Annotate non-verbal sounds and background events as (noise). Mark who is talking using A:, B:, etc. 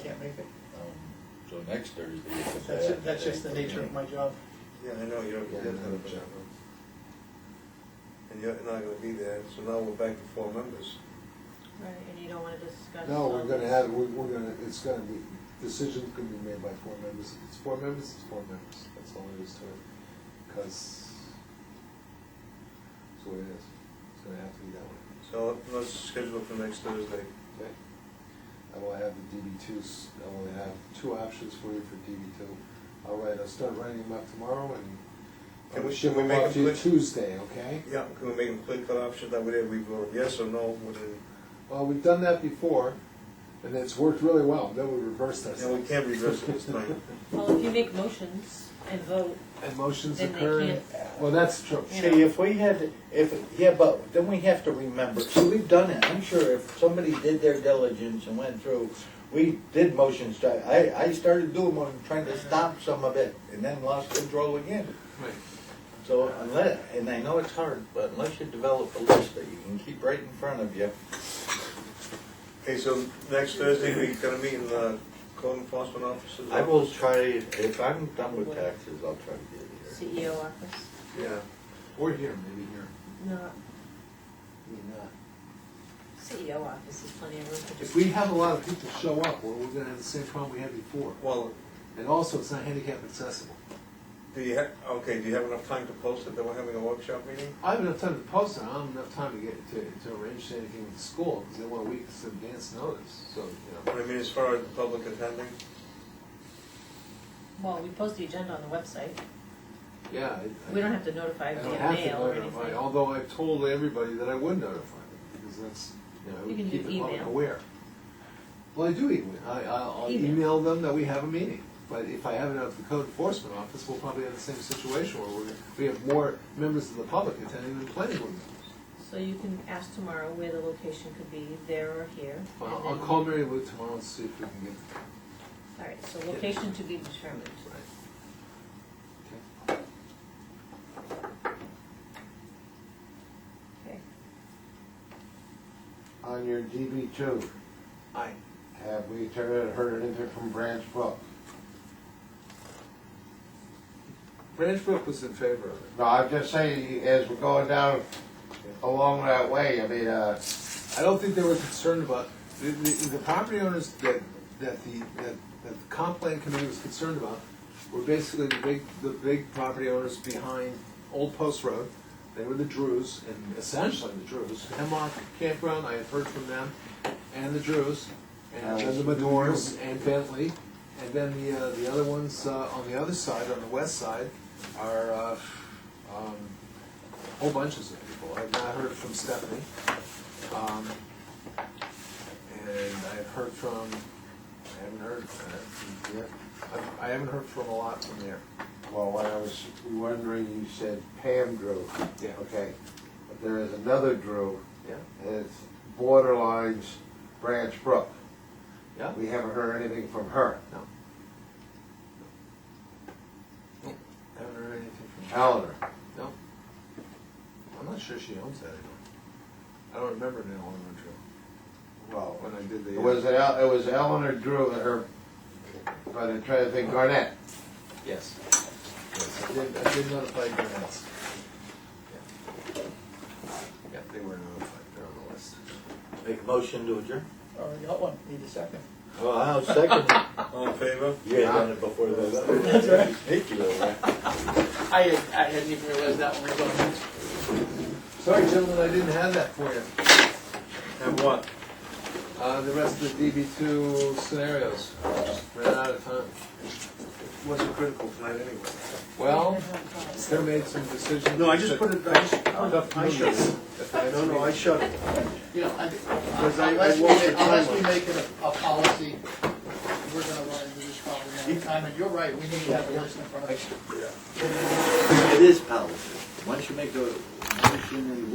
A: Um, next Thursday. is a
B: That's, ju-
A: bad
B: that's just the
A: thing.
B: nature of my job.
C: Yeah, I know, you don't, you don't have a job. And you're not gonna be there, so now we're back to four members.
D: Right, and you don't wanna discuss.
E: No, we're
D: um,
E: gonna have, we're, we're gonna, it's gonna be, decisions can be made by four members, If it's four members, it's four members, that's all there is to it, because it's the way it is, it's gonna have to be that way,
C: So let's schedule for next Thursday.
E: okay? I will have the DB twos, I will have two options for you for DB two, all right, I'll start writing them up tomorrow and
C: Can we-
E: I'll ship
C: can we
E: them
C: make
E: off
C: a
E: to you
C: quick-
E: Tuesday, okay?
C: Yeah, can we make a clear cut option, that way we vote yes or no, within,
E: Well, we've done that before, and it's worked really well, then we reversed
C: and we
E: ourselves.
C: can't reverse it
A: (laughs)
C: this time.
D: Well, if you make motions and vote,
E: And motions
D: Then they
E: occur, well, that's true.
D: Yeah.
A: See, if we had, if, yeah, but then we have to remember, so we've done it, I'm sure if somebody did their diligence and went through, we did motion strike, I, I started doing one, trying to stop some of it, and then lost control again.
E: Right.
A: So unless, and I know it's hard, but unless you develop a list that you can keep right in front of you,
C: Okay, so next Thursday, we gonna meet in the code enforcement offices?
A: I will try, if I'm done with taxes, I'll try to get it here.
D: CEO E office,
C: Yeah,
E: Or here, maybe here.
D: not,
E: Maybe not.
D: CEO E office is plenty of room to
E: If
D: just.
E: we have a lot of people show up, well, we're gonna have the same problem we had before.
C: well,
E: And also, it's not handicap accessible.
C: do you have, okay, do you have enough time to post it, that we're having a workshop meeting?
E: I have enough time to post it, I don't have enough time to get, to, to arrange anything with the school, because they want a week's advance notice, so, you
C: What
E: know.
C: I mean, as far as the public attending?
D: Well, we post the agenda on the website,
E: Yeah. I-
D: we don't have to notify
E: I don't
D: via
E: have to
D: mail or
E: notify,
D: anything.
E: Although I've told everybody that I would notify them, because that's, you know, I
D: You
E: would
D: can do
E: keep the public
D: email.
E: aware. Well, I do email, I, I'll I'll
D: Email.
E: email them that we have a meeting, but if I have it at the code enforcement office, we'll probably have the same situation where we're, we have more members of the public attending than planning board members.
D: So you can ask tomorrow where the location could be, there or here. and
E: Well, I'll
D: then-
E: call Mary Lou tomorrow and see if we can get the time.
D: All right, so location to be determined.
E: Right.
D: Okay.
F: On your DB two,
E: Okay.
F: have we heard, heard anything from Branch Brook?
E: Branch Brook was in favor of it.
F: No, I'm just saying, as we're going down along that way, I mean, uh,
E: I don't think they were concerned about, the, the, the property owners that, that the, that, that the comp plan committee was concerned about were basically the big, the big property owners behind Old Post Road. They were the Drews, and essentially the Drews, Hemlock Campground, I have heard from them, and the Drews, and then the Medors, and Bentley. And then the, uh, the other ones, uh, on the other side, on the west side, are, uh, um, whole bunches of people. I've not heard from Stephanie. Um, and I've heard from, I haven't heard, uh, from here. I've- I haven't heard from a lot from there.
F: well, when I was wondering, you said Pam Drew.
E: Yeah.
F: Okay, but there is another Drew,
E: Yeah?
F: and it's borderlines Branch Brook.
E: Yeah?
F: We haven't heard anything from her.
E: No. No. Haven't heard anything from her.
F: Eleanor,
E: No. I'm not sure she owns that anymore. I don't remember an Eleanor Drew.
F: well,
E: When I did the.
F: it was, El- it was Eleanor Drew and her, but I'm trying to think, Garnett.
E: uh, Yes. Yes, I did, I did notify Granite's. Yeah, they were notified, they're on the list.
A: Make a motion to adjourn?
B: Or you got one, need a second.
A: Well, I'll second,
C: All in favor?
A: you had done it before the.
B: right.
A: Thank you, all right.
B: I, I hadn't even realized that one was on.
E: Sorry, gentlemen, I didn't have that for you.
C: And what?
E: Uh, the rest of the DB two scenarios, ran out of time.
C: Wasn't critical tonight anyway.
E: Well, they made some decisions.
C: No, I just put it, I just, I shut it. No, no, I shut it.
G: You know, I,
C: Because I- I
G: unless we,
C: walked the
G: make- unless
C: timeline.
G: we make it a, a policy, we're gonna run into this problem all the time, and you're right, we need to have a list in front of us.
A: It is policy. Once you make a motion and